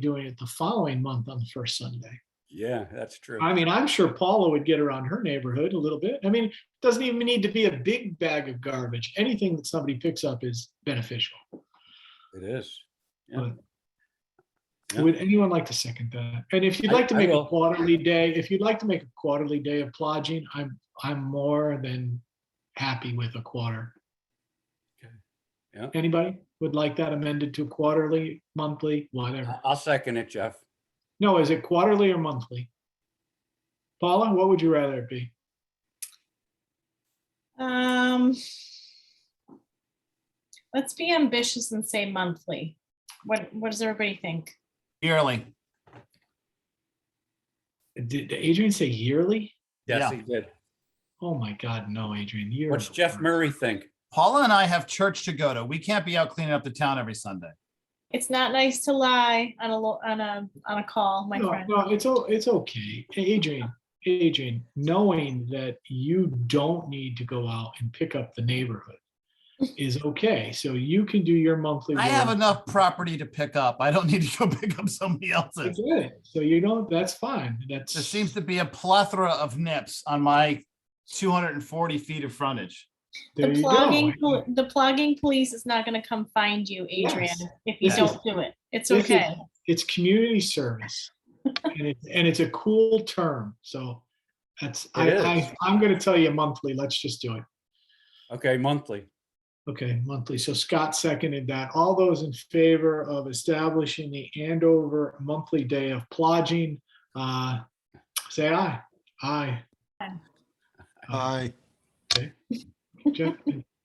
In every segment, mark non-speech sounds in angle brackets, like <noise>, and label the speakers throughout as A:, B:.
A: doing it the following month on the first Sunday.
B: Yeah, that's true.
A: I mean, I'm sure Paula would get around her neighborhood a little bit. I mean, it doesn't even need to be a big bag of garbage. Anything that somebody picks up is beneficial.
B: It is. Yeah.
A: Would anyone like to second that? And if you'd
B: I-
A: like to
B: I
A: make a
B: will.
A: quarterly day, if you'd like to make a quarterly day of plodging, I'm, I'm more than happy with a quarter.
B: Okay. Yeah.
A: Anybody would like that amended to quarterly, monthly, whatever?
B: I- I'll second it, Jeff.
A: No, is it quarterly or monthly? Paula, what would you rather it be?
C: Um, let's be ambitious and say monthly. What, what does everybody think?
D: yearly.
A: Did did Adrian say yearly?
B: Yes,
D: Yeah.
B: he did.
A: Oh my God, no, Adrian, you're.
B: What's
A: the
B: Jeff
A: worst.
B: Murray think?
D: Paula and I have church to go to. We can't be out cleaning up the town every Sunday.
C: It's not nice to lie on a, lo- on a, on a call, my
A: No,
C: friend.
A: No, it's, o- it's okay. Hey, Adrian, Adrian, knowing that you don't need to go out and pick up the neighborhood is okay. So you can do your monthly.
D: I have
A: work.
D: enough property to pick up. I don't <laughs> need to go pick up somebody
A: I
D: else's.
A: get it. So you know, that's fine.
D: There
A: That's,
D: seems to be a plethora of nips on my two hundred and forty feet of frontage.
A: there
C: The oh,
A: you
C: plugging,
A: go.
C: pol- the plugging police is not gonna come find you, Adrian,
A: Yes.
C: if you
A: Yes.
C: don't do it. It's
A: This is-
C: okay. <laughs>
A: It's community service. And it's, and it's a cool term. So that's, I,
B: It
A: I, I'm going to tell you monthly. Let's just do it.
B: Okay, monthly.
A: Okay, monthly. So Scott seconded that. All those in favor of establishing the Andover monthly day of plodging, uh, say aye. Aye.
C: Aye.
E: Aye.
A: Jeff-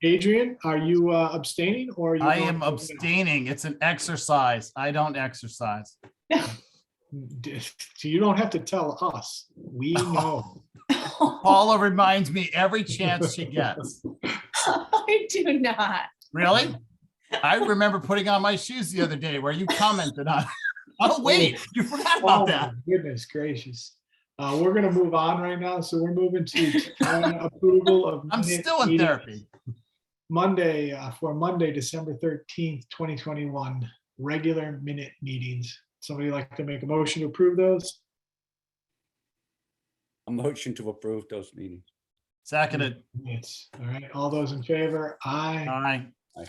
A: Adrian, are you uh, abstaining or? are you
D: I
A: going- uh,
D: am abstaining. It's an exercise. I don't exercise.
A: D- So you don't have to tell us.
D: <laughs>
A: We
D: Oh,
A: know.
D: Paula reminds me every chance she gets.
C: I do not.
D: Really? I remember putting on my shoes the other day where you commented on. <laughs> Oh, wait, you forgot
A: Oh
D: about that.
A: my Goodness gracious. Uh, we're gonna move on right now. So we're moving
D: <laughs>
A: to uh, approval of.
D: I'm
A: minute
D: still in
A: meeting-
D: therapy.
A: Monday, uh, for Monday, December thirteenth, twenty twenty-one, regular minute meetings. Somebody like to make a motion to approve those?
B: A motion to approve those meetings.
D: Seconded.
A: Yes, all right, all those in favor? Aye.
D: Aye.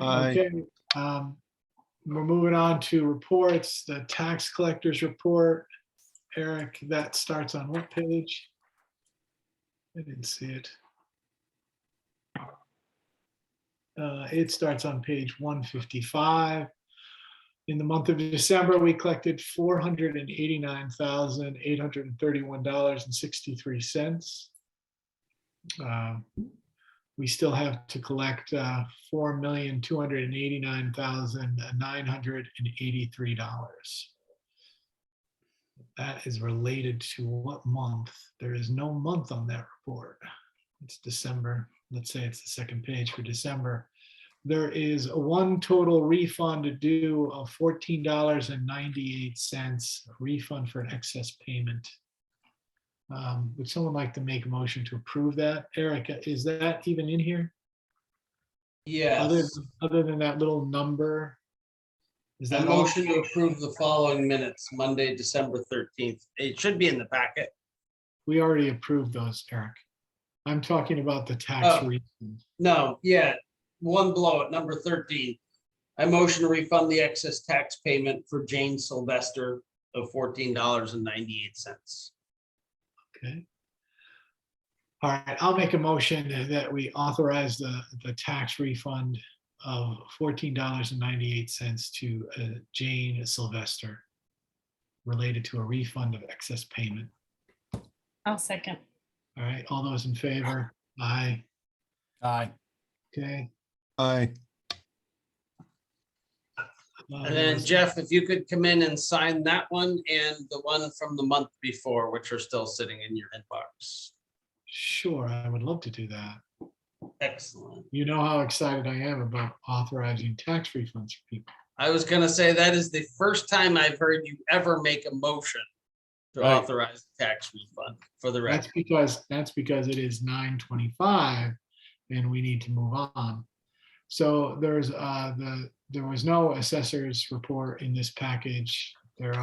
E: Aye.
A: Okay. um, We're moving on to reports, the tax collectors report. Eric, that starts on what page? I didn't see it. Uh, It starts on page 155. In the month of December, we collected $489,831.63. Um, We still have to collect uh, $4,289,983. That is related to what month? There is no month on that report. It's December. Let's say it's the second page for December. There is a one total refund due of fourteen dollars and ninety-eight cents refund for an excess payment. Um, Would someone like to make a motion to approve that? Erica, is that even in here? Other,
F: Yes,
A: other than that little number? Is
F: a
A: that all?
F: motion to approve the following minutes, Monday, December thirteenth. It should be in the packet.
A: We already approved those, Eric. I'm talking about the tax
F: Oh.
A: refund.
F: No, yeah, one blow at number thirteen. I motion to refund the excess tax payment for Jane Sylvester of fourteen dollars and ninety-eight cents.
A: Okay. All right, I'll make a motion that we authorize the, the tax refund of fourteen dollars and ninety-eight cents to uh, Jane Sylvester related to a refund of excess payment.
C: I'll second.
A: All right, all those in favor? Aye.
D: Aye.
A: Okay.
E: Aye.
F: And then Jeff, if you could come in and sign that one and the one from the month before, which are still sitting in your inbox.
A: Sure, I would love to do that.
F: Excellent.
A: You know how excited I am about authorizing tax refunds for people.
F: I was gonna say, that is the first time I've heard you ever make a motion to
B: Right.
F: authorize the tax refund for the
A: That's
F: record.
A: because, that's because it is nine twenty-five and we need to move on. So there's, uh, the, there was no assessor's report in this package.